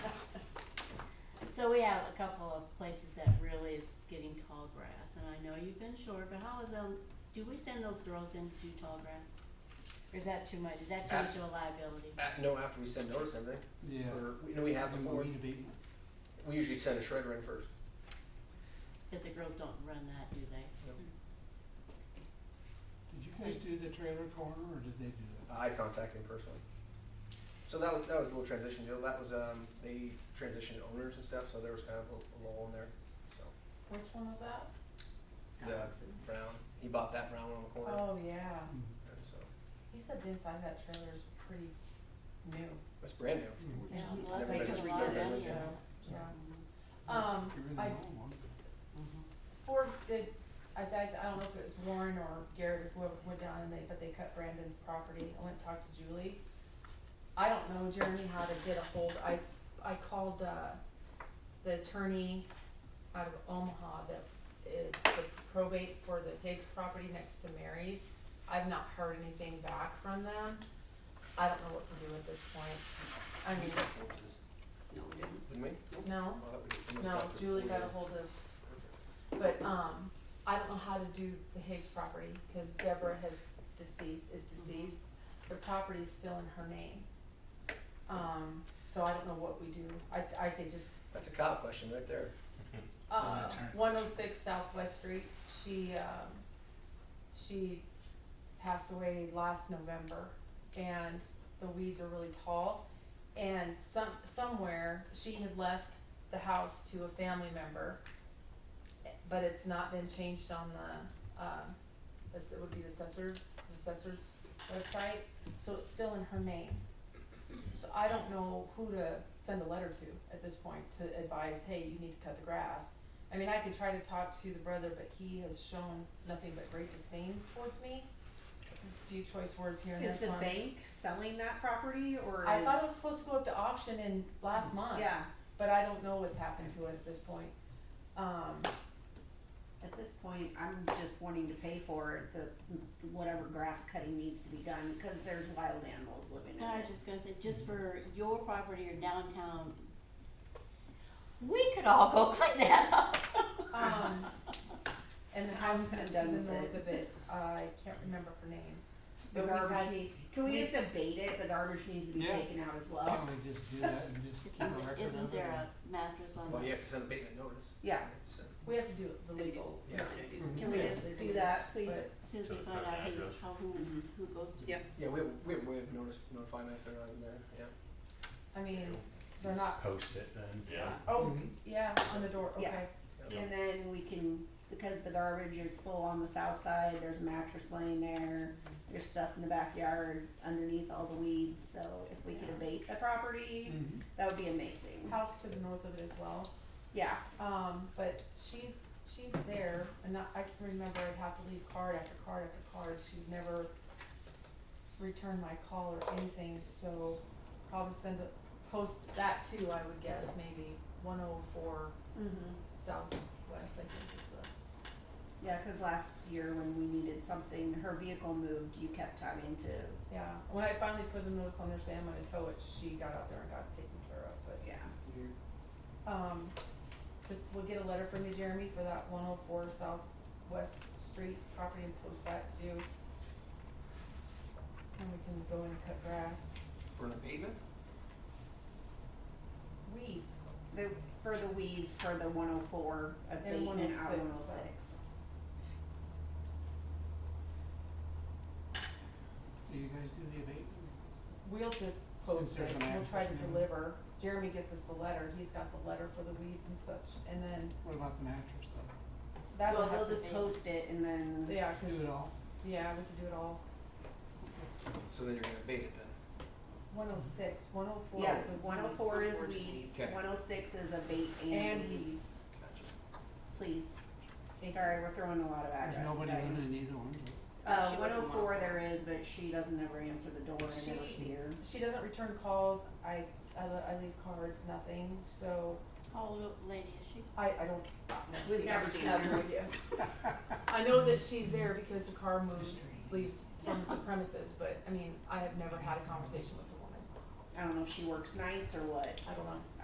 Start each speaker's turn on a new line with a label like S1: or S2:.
S1: So we have a couple of places that really is getting tall grass, and I know you've been short, but how is them, do we send those girls in to do tall grass? Or is that too much, is that too much of a liability?
S2: Uh, no, after we send notice and everything,
S3: Yeah.
S2: for, you know, we have
S3: And we
S2: before,
S3: need to be-
S2: we usually send a shredder in first.
S1: That the girls don't run that, do they?
S3: Did you guys do the trailer corner or did they do that?
S2: I contact him personally. So that was, that was a little transition deal, that was, um, they transitioned owners and stuff, so there was kind of a, a lull in there, so.
S4: Which one was that?
S2: The Brown, he bought that brown one on the corner,
S4: Oh, yeah.
S3: Hmm,
S2: and so,
S4: He said the inside of that trailer is pretty new.
S2: it's brand new.
S3: Mm.
S1: Yeah,
S2: Never
S1: well, that's
S2: been
S1: taking a
S2: three
S1: lot of
S2: different
S1: money
S2: ones.
S1: out.
S4: Yeah.
S1: Mhm.
S4: Um,
S3: You're in the
S4: I,
S3: wrong one.
S4: Forbes did, I, I, I don't know if it was Warren or Garrett or whoever went down and they, but they cut Brandon's property. I went and talked to Julie. I don't know, Jeremy, how to get a hold, I, s- I called, uh, the attorney out of Omaha that is the probate for the Higgs property next to Mary's. I've not heard anything back from them. I don't know what to do at this point. I mean,
S1: No, we didn't.
S2: Didn't we?
S4: no,
S2: Oh, that we- we must
S4: no,
S2: have to-
S4: Julie got a hold of, but, um, I don't know how to do the Higgs property, cause Deborah has deceased, is deceased. The property's still in her name. Um, so I don't know what we do. I, I say just
S2: That's a cop question right there.
S4: uh, one oh six Southwest Street, she, um, she passed away last November, and the weeds are really tall. And some, somewhere, she had left the house to a family member, but it's not been changed on the, um, this, it would be the assessor, assessor's website, so it's still in her name. So I don't know who to send a letter to at this point to advise, hey, you need to cut the grass. I mean, I could try to talk to the brother, but he has shown nothing but great disdain towards me. A Few choice words here and there.
S5: Is the
S4: so I'm-
S5: bank selling that property or is?
S4: I thought it was supposed to go up to auction in last month.
S5: Yeah,
S4: But I don't know what's happened to it at this point. Um,
S5: at this point, I'm just wanting to pay for the, whatever grass cutting needs to be done, cause there's wild animals living in
S1: No, I was
S5: it.
S1: just gonna say, just for your property or downtown, we could all go clean that up.
S4: um, and the house
S5: I'm
S4: to the
S5: done with
S4: north
S5: it.
S4: of it, I can't remember her name.
S5: The
S4: But we've
S5: garbage
S4: had-
S5: need, can we
S4: we-
S5: just abate it, the garbage needs to be
S3: Yeah.
S5: taken out as well?
S3: Can't we just do that and just keep a
S1: Isn't,
S3: record of it?
S1: Oh. isn't there a mattress
S4: Um,
S1: on
S2: Well, you
S1: the,
S2: have to send a abatement notice.
S5: Yeah.
S2: So,
S4: We have to do the legal.
S2: Yeah,
S5: Can we
S4: Yes.
S5: just do that, please?
S4: But-
S1: as soon as
S6: So
S1: we
S6: it's
S1: find
S6: got an
S1: out who,
S6: address.
S1: how, who, who goes to?
S5: Yep.
S2: yeah, we have, we have a way of notice, notifying them if they're not in there, yeah.
S4: I mean, they're not,
S6: Post it then. Yeah.
S4: oh,
S2: Mm-hmm.
S3: Mhm.
S4: yeah, on the door,
S5: Yeah.
S4: okay.
S6: Yeah.
S5: And then we can, because the garbage is full on the south side, there's a mattress laying there, there's stuff in the backyard underneath all the weeds, so if we could abate the property,
S3: Mhm.
S5: that would be amazing.
S4: House to the north of it as well.
S5: Yeah,
S4: Um, but she's, she's there, and I, I can remember I'd have to leave card after card after card, she'd never return my call or anything, so probably send a, post that too, I would guess, maybe one oh four
S5: mhm.
S4: southwest, I think is the,
S5: Yeah, because last year when we needed something, her vehicle moved, you kept having to,
S4: yeah. When I finally put the notice on there saying I'm gonna tow it, she got out there and got it taken care of, but
S5: yeah.
S2: You're-
S4: Um, just, we'll get a letter from you, Jeremy, for that one oh four Southwest Street property and post that to. And we can go and cut grass,
S2: For an abatement?
S4: weeds,
S5: The, for the weeds, for the one oh four abatement out one oh
S4: 106.
S5: six.
S3: Do you guys do the abatement?
S4: we'll just post
S3: there's
S4: it,
S3: an
S4: we'll try to
S3: address now.
S4: deliver, Jeremy gets us the letter, he's got the letter for the weeds and such, and then
S3: What about the mattress though?
S4: that'll
S5: Well,
S4: have to be.
S5: they'll just post it and then.
S4: Yeah,
S3: Do it
S4: 'cause-
S3: all?
S4: yeah, we can do it all,
S2: So then you're gonna abate it then?
S4: one oh six, one oh four
S5: Yeah,
S4: is a.
S5: one oh four is
S1: 104 is
S5: weeds,
S2: weeds. Okay.
S5: one oh six is abate
S4: And
S5: and
S4: weeds.
S5: weeds,
S2: Gotcha.
S5: please,
S4: Thank you.
S5: sorry, we're throwing a lot of
S3: There's
S5: addresses out
S3: nobody
S5: here.
S3: living in either one, but-
S5: Uh,
S1: She
S5: one
S1: lives in
S5: oh four
S1: 104.
S5: there is, but she doesn't ever answer the door and never
S4: She-
S5: see her.
S4: She doesn't return calls, I, I, le- I leave cards, nothing, so
S1: How old a lady is she?
S4: I, I don't.
S5: We've never seen her.
S4: idea. I know that she's there because the car moves, leaves from the premises, but I mean, I have never had a conversation with the woman.
S5: I don't know if she works nights or what.
S4: I don't know.